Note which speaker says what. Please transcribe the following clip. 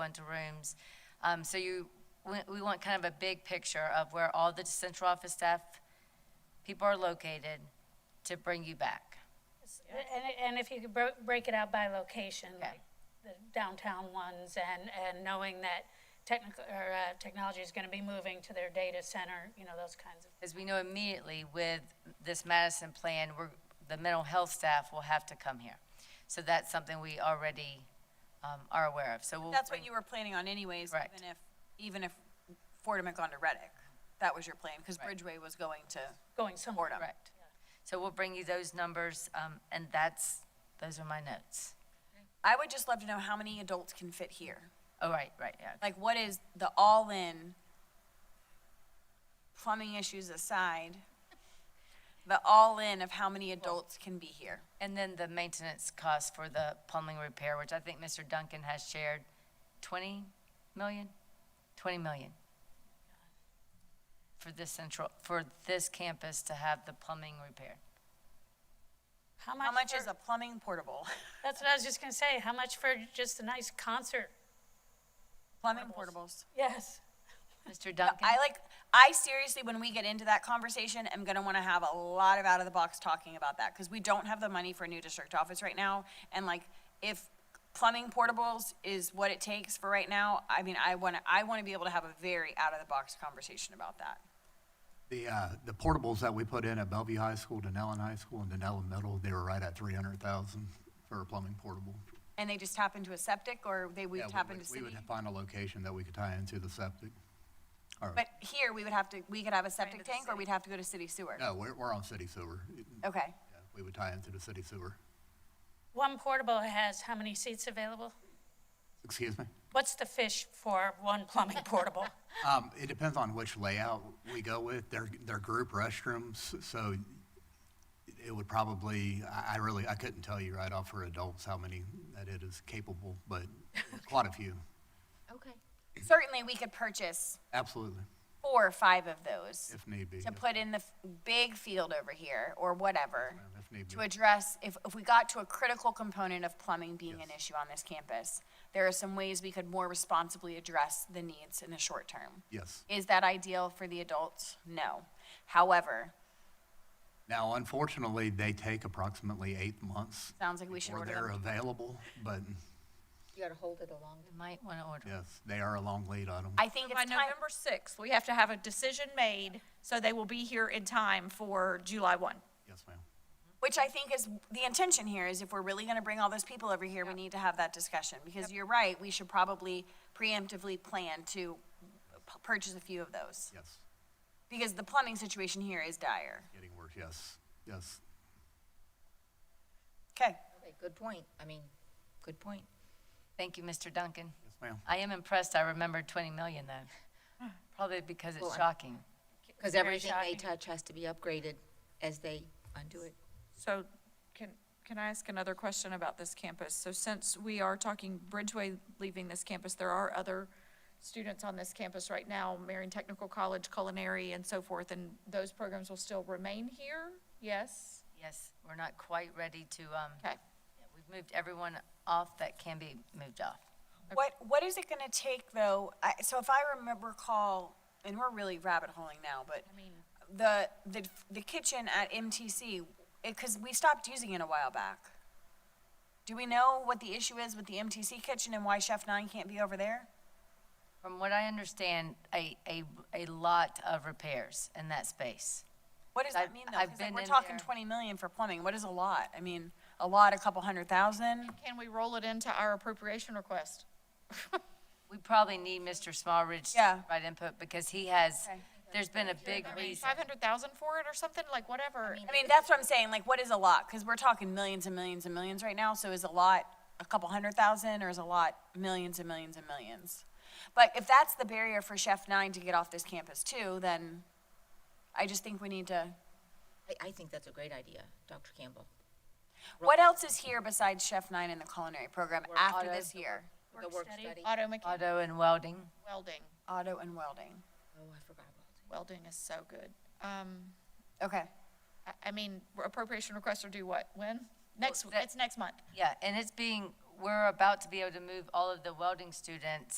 Speaker 1: into rooms. Um, So you, we we want kind of a big picture of where all the central office staff, people are located to bring you back.
Speaker 2: And, and if you could bro- break it out by location,
Speaker 1: Okay.
Speaker 2: like the downtown ones, and, and knowing that technical, or, uh, technology is gonna be moving to their data center, you know, those kinds of,
Speaker 1: As we know immediately with this Madison plan, we're, the mental health staff will have to come here. So that's something we already um, are aware of, so we'll.
Speaker 3: That's what you were planning on anyways,
Speaker 1: Correct.
Speaker 3: even if, even if Fordham had gone to Reddick. That was your plan, because
Speaker 1: Right.
Speaker 3: Bridgeway was going to
Speaker 2: going somewhere.
Speaker 3: Fordham.
Speaker 1: Correct. So we'll bring you those numbers, um, and that's, those are my notes.
Speaker 3: I would just love to know how many adults can fit here.
Speaker 1: Oh, right, right, yeah.
Speaker 3: Like, what is the all-in, plumbing issues aside, the all-in of how many adults can be here?
Speaker 1: And then the maintenance cost for the plumbing repair, which I think Mr. Duncan has shared, 20 million? 20 million. For this central, for this campus to have the plumbing repaired.
Speaker 3: How much
Speaker 2: for-
Speaker 3: is a plumbing portable?
Speaker 2: That's what I was just gonna say, how much for just a nice concert?
Speaker 3: Plumbing portables.
Speaker 2: Yes.
Speaker 1: Mr. Duncan?
Speaker 3: I like, I seriously, when we get into that conversation, am gonna wanna have a lot of out of the box talking about that, cause we don't have the money for a new district office right now, and like, if plumbing portables is what it takes for right now, I mean, I wanna, I wanna be able to have a very out of the box conversation about that.
Speaker 4: The, uh, the portables that we put in at Bellevue High School, Denellen High School, and Denellen Middle, they were right at three hundred thousand for a plumbing portable.
Speaker 3: And they just tap into a septic, or they would
Speaker 4: Yeah, we
Speaker 3: tap
Speaker 4: would-
Speaker 3: into
Speaker 4: We
Speaker 3: city?
Speaker 4: would find a location that we could tie into the septic. Or,
Speaker 3: But here, we would have to, we could have a septic
Speaker 1: the
Speaker 3: tank, or
Speaker 1: city.
Speaker 3: we'd have to go to city sewer?
Speaker 4: no, we're, we're on city sewer. It-
Speaker 3: Okay,
Speaker 4: yeah, We would tie into the city sewer.
Speaker 2: One portable has how many seats available?
Speaker 4: Excuse me?
Speaker 2: What's the fish for one plumbing portable?
Speaker 4: Um, it depends on which layout we go with. They're, they're group restrooms, so it would probably, I, I really, I couldn't tell you right off for adults how many that it is capable, but quite a few.
Speaker 3: certainly, we could purchase
Speaker 4: Absolutely,
Speaker 3: four or five of those.
Speaker 4: if need be.
Speaker 3: to put in the f- big field over here or whatever
Speaker 4: If need
Speaker 3: to
Speaker 4: be.
Speaker 3: address, if, if we got to a critical component of plumbing being an issue on this campus, there are some ways we could more responsibly address the needs in the short term.
Speaker 4: Yes.
Speaker 3: Is that ideal for the adults? No. However,
Speaker 4: Now, unfortunately, they take approximately eight months.
Speaker 3: Sounds like we should order
Speaker 4: Before
Speaker 3: them.
Speaker 4: they're available, but
Speaker 5: You gotta hold it a long
Speaker 1: You Might want to order.
Speaker 4: yes, they are a long lead item.
Speaker 3: I think
Speaker 6: By
Speaker 3: it's time,
Speaker 6: November 6th, we have to have a decision made, so they will be here in time for July 1.
Speaker 4: Yes, ma'am.
Speaker 3: which I think is, the intention here is if we're really gonna bring all those people over here, we need to have that discussion. Because you're right, we should probably preemptively plan to p- purchase a few of those.
Speaker 4: Yes,
Speaker 3: Because the plumbing situation here is dire.
Speaker 4: getting worse, yes, yes.
Speaker 3: Okay.
Speaker 5: Okay, good point. I mean, good point.
Speaker 1: Thank you, Mr. Duncan.
Speaker 4: Yes, ma'am.
Speaker 1: I am impressed I remembered 20 million though. Probably because it's shocking.
Speaker 5: Because everything they touch has to be upgraded as they undo it.
Speaker 7: So can, can I ask another question about this campus? So since we are talking Bridgeway leaving this campus, there are other students on this campus right now, Marion Technical College, culinary and so forth, and those programs will still remain here? Yes?
Speaker 1: Yes, we're not quite ready to, um,
Speaker 7: Okay.
Speaker 1: we've moved everyone off that can be moved off.
Speaker 3: What, what is it gonna take though, I, so if I remember call, and we're really rabbit holing now, but the, the, the kitchen at MTC, it, cause we stopped using it a while back. Do we know what the issue is with the MTC kitchen and why Chef Nine can't be over there?
Speaker 1: From what I understand, a, a, a lot of repairs in that space.
Speaker 3: What does
Speaker 1: I've-
Speaker 3: that mean though?
Speaker 1: I've
Speaker 3: 'Cause, like,
Speaker 1: been
Speaker 3: we're
Speaker 1: in
Speaker 3: talking
Speaker 1: there.
Speaker 3: twenty million for plumbing, what is a lot? I mean, a lot, a couple hundred thousand?
Speaker 7: Can we roll it into our appropriation request?
Speaker 1: We probably need Mr. Smallridge
Speaker 3: Yeah.
Speaker 1: to provide input because he has,
Speaker 3: Okay.
Speaker 1: there's been a big reason.
Speaker 7: Five hundred thousand for it or something, like whatever.
Speaker 3: I mean, that's what I'm saying, like, what is a lot? Cause we're talking millions and millions and millions right now, so is a lot a couple hundred thousand, or is a lot millions and millions and millions? But if that's the barrier for Chef Nine to get off this campus too, then I just think we need to,
Speaker 5: I, I think that's a great idea, Dr. Campbell.
Speaker 3: what else is here besides Chef Nine and the culinary program after this year?
Speaker 5: The work study. Oh,
Speaker 7: Auto mechanic,
Speaker 1: Auto and welding.
Speaker 7: welding,
Speaker 3: Auto and welding,
Speaker 5: Oh, I forgot about
Speaker 7: welding is so good. Um,
Speaker 3: okay.
Speaker 7: I, I mean, appropriation requests are due what, when? Next,
Speaker 1: that-
Speaker 7: it's next month.
Speaker 1: Yeah, and it's being, we're about to be able to move all of the welding students